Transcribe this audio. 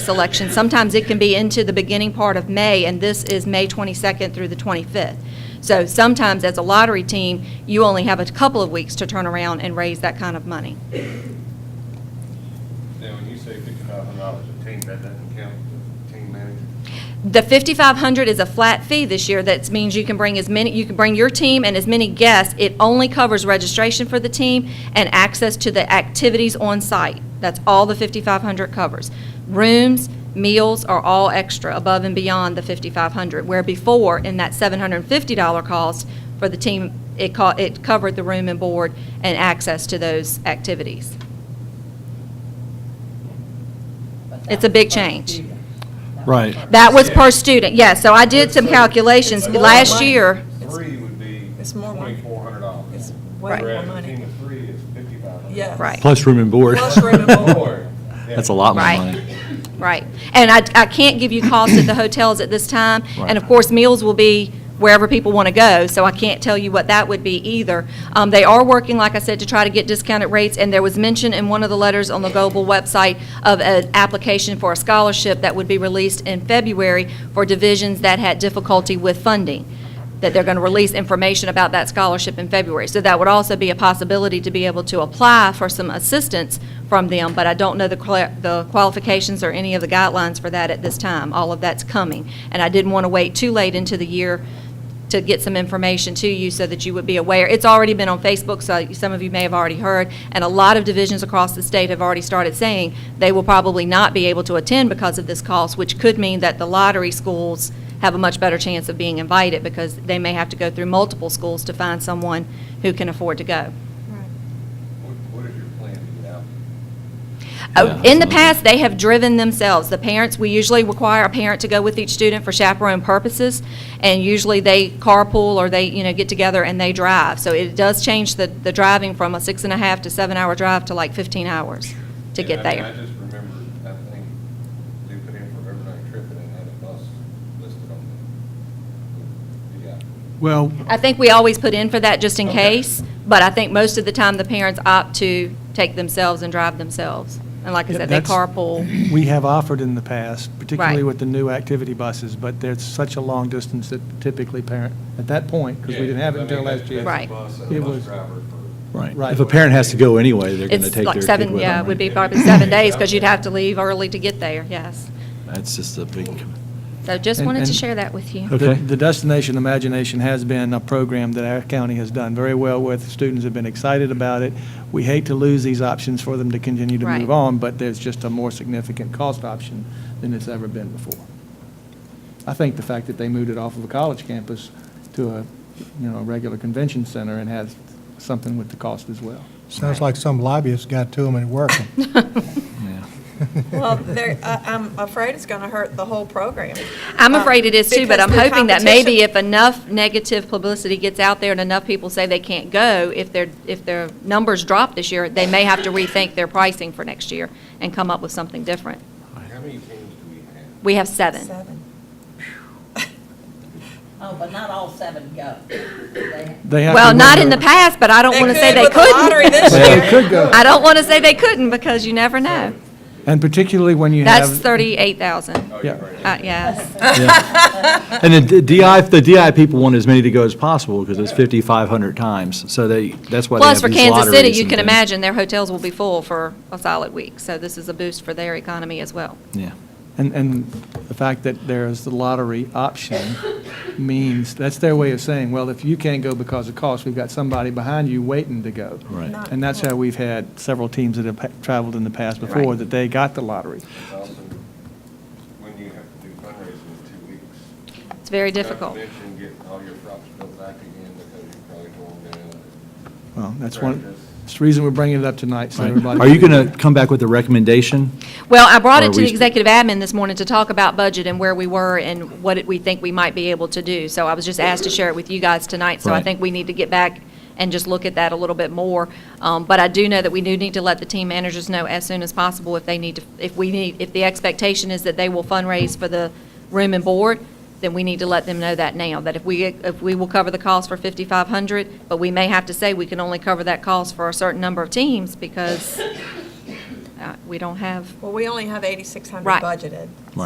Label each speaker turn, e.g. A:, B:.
A: selection. Sometimes it can be into the beginning part of May, and this is May 22nd through the 25th. So sometimes, as a lottery team, you only have a couple of weeks to turn around and raise that kind of money.
B: Now, when you say fifty-five hundred dollars a team, that doesn't count the team manager?
A: The 5,500 is a flat fee this year. That means you can bring as many, you can bring your team and as many guests. It only covers registration for the team and access to the activities on site. That's all the 5,500 covers. Rooms, meals are all extra above and beyond the 5,500, where before, in that $750 cost for the team, it co, it covered the room and board and access to those activities. It's a big change.
C: Right.
A: That was per student, yes. So I did some calculations
B: So,
A: last year.
B: Three would be
D: It's more money.
B: twenty-four hundred
D: It's
B: dollars.
D: way more
B: Whereas a
D: money.
B: team of three is fifty-five hundred.
D: Yes.
A: Right.
C: Plus room and board.
D: Plus room and board.
C: That's a lot more
A: Right.
C: money.
A: Right. And I, I can't give you costs at the hotels at this time. And of
C: Right.
A: course, meals will be wherever people want to go, so I can't tell you what that would be either. Um, they are working, like I said, to try to get discounted rates, and there was mention in one of the letters on the Global website of an application for a scholarship that would be released in February for divisions that had difficulty with funding, that they're going to release information about that scholarship in February. So that would also be a possibility to be able to apply for some assistance from them, but I don't know the quali- the qualifications or any of the guidelines for that at this time. All of that's coming. And I didn't want to wait too late into the year to get some information to you so that you would be aware. It's already been on Facebook, so some of you may have already heard, and a lot of divisions across the state have already started saying they will probably not be able to attend because of this cost, which could mean that the lottery schools have a much better chance of being invited because they may have to go through multiple schools to find someone who can afford to go.
B: What, what is your plan to get out?
A: Uh,
C: Yeah,
A: In the
C: absolutely.
A: past, they have driven themselves. The parents, we usually require a parent to go with each student for chaperone purposes, and usually they carpool or they, you know, get together and they drive. So it does change the, the driving from a six and a half to seven-hour drive to like 15 hours to
B: And
A: get
B: I mean, I
A: there.
B: just remember, I think, they put in for overnight trip and they had a bus listed on the, yeah.
E: Well,
A: I think we always put in for that just in
B: Okay.
A: case, but I think most of the time, the parents opt to take themselves and drive themselves. And like I said, they
E: That's-
A: carpool.
E: we have offered in the past, particularly
A: Right.
E: with the new activity buses, but there's such a long distance that typically parent, at that point, because we didn't have it
B: Yeah, I mean,
E: until last year.
A: Right.
B: that's- that's the
E: It
B: bus and
E: was-
B: bus driver for.
C: If a parent has to go anyway, they're going to
A: It's
C: take their
A: like
C: kid
A: seven,
C: with
A: yeah,
C: them,
A: it would be
C: right?
A: probably seven days, because you'd have to leave early to get there, yes.
C: That's just a big,
A: So just
E: And-
A: wanted to
E: and-
A: share that with you.
C: Okay.
E: The the Destination Imagination has been a program that our county has done very well with. Students have been excited about it. We hate to lose these options for them to continue to
A: Right.
E: move on, but there's just a more significant cost option than it's ever been before. I think the fact that they moved it off of a college campus to a, you know, a regular convention center and has something with the cost as well.
F: Sounds like some lobbyist got to them and it worked.
C: yeah.
D: Well, there, I- I'm afraid it's going to hurt the whole program.
A: I'm
D: Um,
A: afraid it is too, but
D: because
A: I'm
D: the
A: hoping that maybe
D: competition-
A: if enough negative publicity gets out there and enough people say they can't go, if their, if their numbers drop this year, they may have to rethink their pricing for next year and come up with something different.
B: How many teams do we have?
A: We have seven.
D: Seven.
G: Oh, but not all seven go. They-
E: They have to
A: Well, not in the
E: wonder-
A: past, but I don't want to say they
D: with the lottery
A: couldn't.
D: this
E: Well,
D: year.
E: it could go.
A: I don't want to say they couldn't because you never know.
E: And particularly when you have.
A: That's 38,000. Uh,
B: Oh, you're
E: Yeah.
B: right.
A: Yes,
E: Uh,
C: And the D- DI, the DI people want as many to go as possible because it's 5,500 times. So they, that's why they have
A: Plus,
C: these
A: for
C: lotteries.
A: Kansas City, you
C: and
A: can
C: things.
A: imagine their hotels will be full for a solid week. So this is a boost for their economy as well.
C: Yeah.
E: And, and the fact that there's the lottery option means, that's their way of saying, well, if you can't go because of cost, we've got somebody behind you waiting to go.
C: Right.
D: Not-
E: And that's how we've had several teams that have pa- traveled in the past before,
A: Right.
E: that they got the lottery.
B: It's also when you have to do fundraising in two weeks.
A: It's very
B: Not to
A: difficult.
B: mention getting all your props built back again because you probably tore them down.
E: Well, that's one,
B: Practice.
E: it's the reason we're bringing it up tonight, so everybody.
C: Are you going to come back with a recommendation?
A: Well, I brought
C: Or
A: it to
C: we-
A: the executive admin this morning to talk about budget and where we were and what it- we think we might be able to do. So I was just asked to share it with you guys tonight, so I
C: Right.
A: think we need to get back and just look at that a little bit more. Um, But I do know that we do need to let the team managers know as soon as possible if they need to, if we need, if the expectation is that they will fundraise for the room and board, then we need to let them know that now, that if we, if we will cover the cost for 5,500, but we may have to say we can only cover that cost for a certain number of teams because
D: uh, we don't have
A: Well, we only have 8,600
D: Right.
A: budgeted.